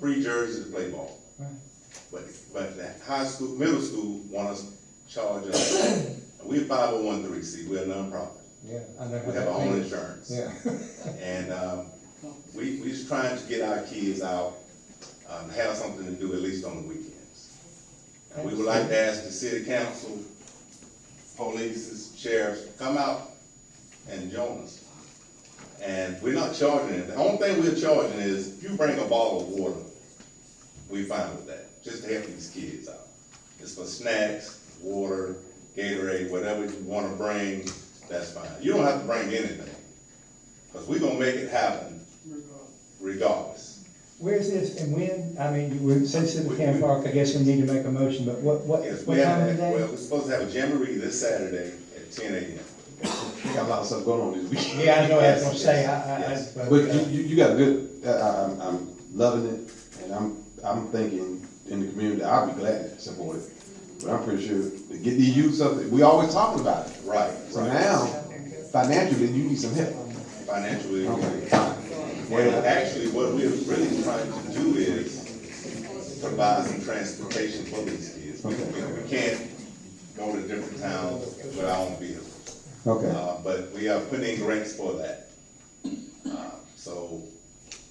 free jerseys to play ball. Right. But, but that high school, middle school want us charge us, and we're five oh one three C, we're a nonprofit. Yeah, I know. how We have that our own feels. insurance. Yeah, And, um, we, we just trying to get our kids out, um, have something to do at least on the weekends. And we would like to ask the city council, police, sheriffs, come out and join us. And we're not charging it. The only thing we're charging is if you bring a bottle of water, we fine with that, just to help these kids out. It's for snacks, water, Gatorade, whatever you wanna bring, that's fine. You don't have to bring anything, cause we gonna make it happen regardless. where's this and when, I mean, you would, since it's We- the camp we- park, I guess we need to make a motion, but what, what, Yes, what we have, time of the well, day? we're supposed to have a jamboree this Saturday at ten AM. We got a lot of stuff going on this weekend. Yeah, I know, I was gonna Yes, say, I, uh, I, I. yes, But you, you, you got a good, uh, I, I'm, I'm loving it, and I'm, I'm thinking in the community, I'll be glad to support it. But I'm pretty sure to get the youth something, we always talking about it. Right, So right. now, financially, you need some help. Financially. Okay, fine. Well, actually, what we're really trying to do is provide some transportation for these kids. We we- we can't go to different towns with our own vehicles. Okay. Uh, but we are putting in grants for that. Uh, So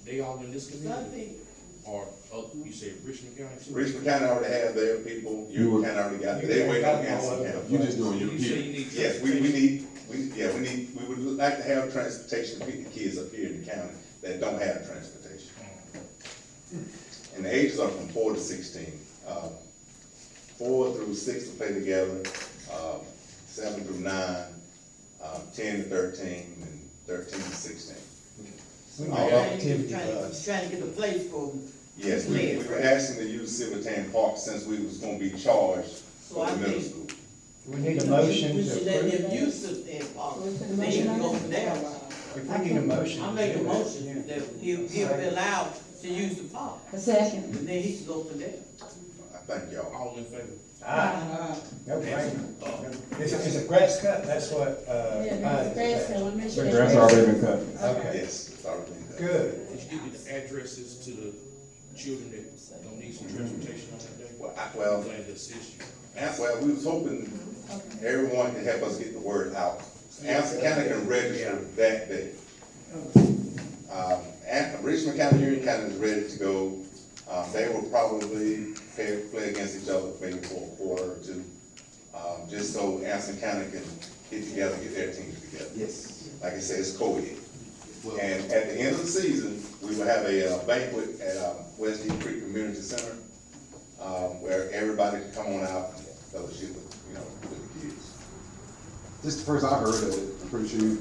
They all in this community? Or, oh, you said Richmond County? too? Richmond County already have their people, You Union were- County already got, they wait on Anson County. You just doing your You say you kid. need. Yes, we, we need, we, yeah, we need, we would like to have transportation to pick the kids up here in the county that don't have transportation. And the ages are from four to sixteen. Um, Four through six to play together, um, seven through nine, um, ten to thirteen, and thirteen to sixteen. We all got of- activity Trying bus. trying to get a place for them. Yes, we, we were asking to use Silverton Park since we was gonna be charged So for I the middle think- school. We need a motion We to should let approve. them use it and, uh, Motion. they can go from there. If we need a motion. I to make a do it, motion yeah. that he'll, he'll be allowed to use the park, A second. and then he can go from there. I thank y'all. All in favor? Uh, Ah, no brainer. Is it, is it grass cut? That's what, uh. mine Yeah, is. grass, so we make sure. that's That's already been cut. Okay, Yes, it's already been done. good. Did you give me the addresses to the children that don't need some transportation on that day? Well, I, I'm well, glad to assist you. That's why we was hoping everyone could help us get the word out. Anson County can register that day. Um, and Richmond County, Union County is ready to go. Um, they will probably play, play against each other maybe for a quarter or two. Um, just so Anson County can get together, get their teams together. Yes. Like I said, it's co-ed. And at the end of the season, we will have a uh, banquet at, um, West Deep Creek Community Center, um, where everybody can come on out and fellowship with, you know, with the kids. This is the first I heard of it, I'm pretty sure you,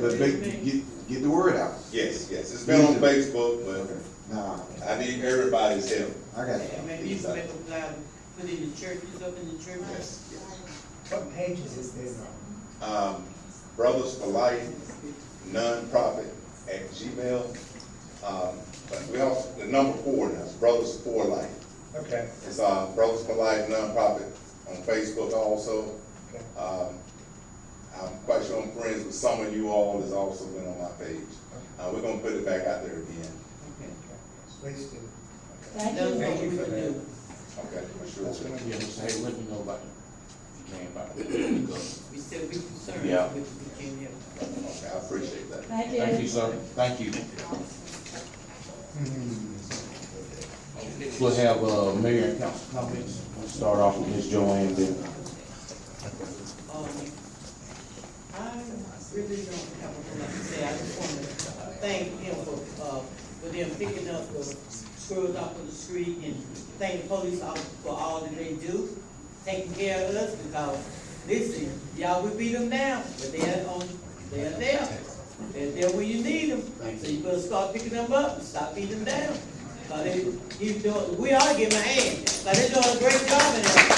but make, get, get the word out. Yes, yes, it's been on Facebook, but Nah, I need everybody's help. I got And it. maybe you can make them allowed, put in the churches, up in the churches. Yes. What pages is this on? Um, Brothers for Life, nonprofit at Gmail. Um, but we also, the number four now, is Brothers for Life. Okay, It's, uh, Brothers for Life nonprofit on Facebook also. okay. Um, I'm quite sure I'm friends with some of you all that's also been on my page. Uh, we're gonna put it back out there again. Please do. Thank That's you. what we can do. Okay, for sure. Yeah, just hey, let me know about it. If you can, about it. We said we concerned, Yeah. but we can't help. Okay, I appreciate that. Thank you. Thank you, sir. Thank you. We'll have, uh, mayor and council comments. We'll start off with Ms. Joanne, then Um, I really don't have a lot to say, I just wanna thank him for, uh, for them picking up the screws off of the street and thank the police officers for all that they do, taking care of us, because, listen, y'all would beat them down, but they're on, they're there. They're there when you need them, so you better start picking them up and stop beating them down. But they, you doing, we all give them a hand, but they're doing a great job in there.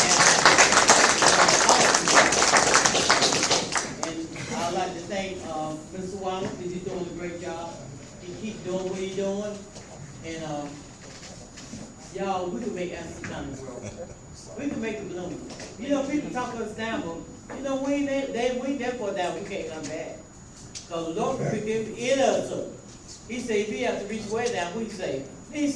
And, uh, and I'd like to thank, um, Mr. Wallace, because he's doing a great job. He keep doing what he doing, and, um, y'all, we can make Anson County grow. We can make it bloom. You know, people talk us down, but, you know, we ain't, that- they, we ain't that far down, we can't come back. Cause Lord, we give it us up. He say, if he have to reach way down, we say,